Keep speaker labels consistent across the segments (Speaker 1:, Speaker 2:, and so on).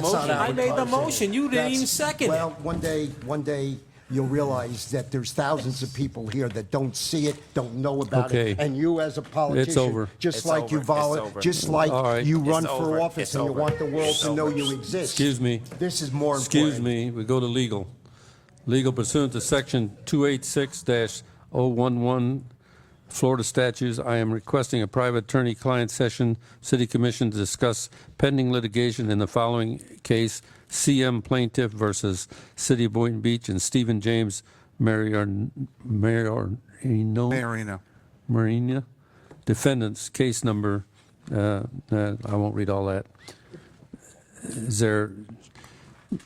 Speaker 1: That's not
Speaker 2: Motion.
Speaker 1: our
Speaker 2: I made the
Speaker 1: policy.
Speaker 2: motion. You didn't
Speaker 1: That's-
Speaker 2: even second it.
Speaker 1: Well, one day, one day, you'll realize that there's thousands of people here that don't see it, don't know about
Speaker 3: Okay.
Speaker 1: it. And you, as a politician.
Speaker 3: over.
Speaker 1: Just
Speaker 2: It's
Speaker 1: like
Speaker 2: over.
Speaker 1: you
Speaker 2: It's
Speaker 1: volunteer,
Speaker 2: over.
Speaker 1: just like
Speaker 3: right.
Speaker 1: you
Speaker 3: It's
Speaker 1: run
Speaker 2: over.
Speaker 1: for office
Speaker 2: It's
Speaker 1: and you
Speaker 2: over.
Speaker 1: want the world
Speaker 2: It's
Speaker 1: to know
Speaker 2: over.
Speaker 1: you exist.
Speaker 3: Excuse me.
Speaker 1: This is more important.
Speaker 3: Excuse me, we go to legal. Legal pursuant to section 286-011 Florida statutes, I am requesting a private attorney-client session, city commission to discuss pending litigation in the following case, CM plaintiff versus City of Boynton Beach and Stephen James Marior- Mariorino.
Speaker 4: Marino.
Speaker 3: Marina. Defendants, case number, uh, uh, I won't read all that. Is there,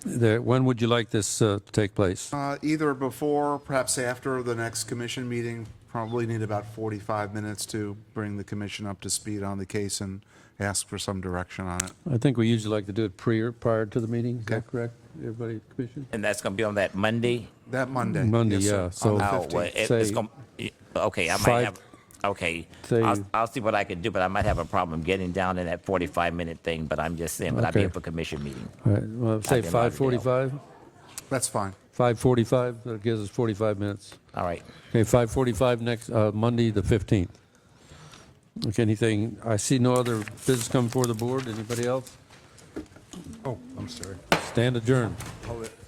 Speaker 3: there, when would you like this uh, to take place?
Speaker 4: Uh, Either before, perhaps after the next commission meeting, probably need about 45 minutes to bring the commission up to speed on the case and ask for some direction on it.
Speaker 3: I think we usually like to do it prior, prior to the meeting, is that
Speaker 4: Okay.
Speaker 3: correct? Everybody, Commission?
Speaker 5: And that's going to be on that Monday?
Speaker 4: That Monday.
Speaker 3: Monday,
Speaker 4: Yes, sir.
Speaker 3: yeah,
Speaker 4: On
Speaker 3: so-
Speaker 4: the
Speaker 5: Oh, well,
Speaker 4: 15th.
Speaker 5: it-
Speaker 3: Say-
Speaker 5: it's going, to okay, I might
Speaker 3: Five-
Speaker 5: have, okay.
Speaker 3: Say-
Speaker 5: I'll, I'll see what I can do, but I might have a problem getting down in that 45-minute thing, but I'm just saying, but I'll be
Speaker 3: Okay.
Speaker 5: up for commission meeting.
Speaker 3: All right, well, say
Speaker 5: I've been already
Speaker 3: 5:45?
Speaker 4: That's fine.
Speaker 3: 5:45, that gives us 45 minutes.
Speaker 5: All right.
Speaker 3: Okay, 5:45 next, uh, Monday, the 15th. Okay, anything, I see no other business coming before the board, anybody else?
Speaker 1: Oh, I'm sorry.
Speaker 3: Stand adjourned.
Speaker 1: Oh,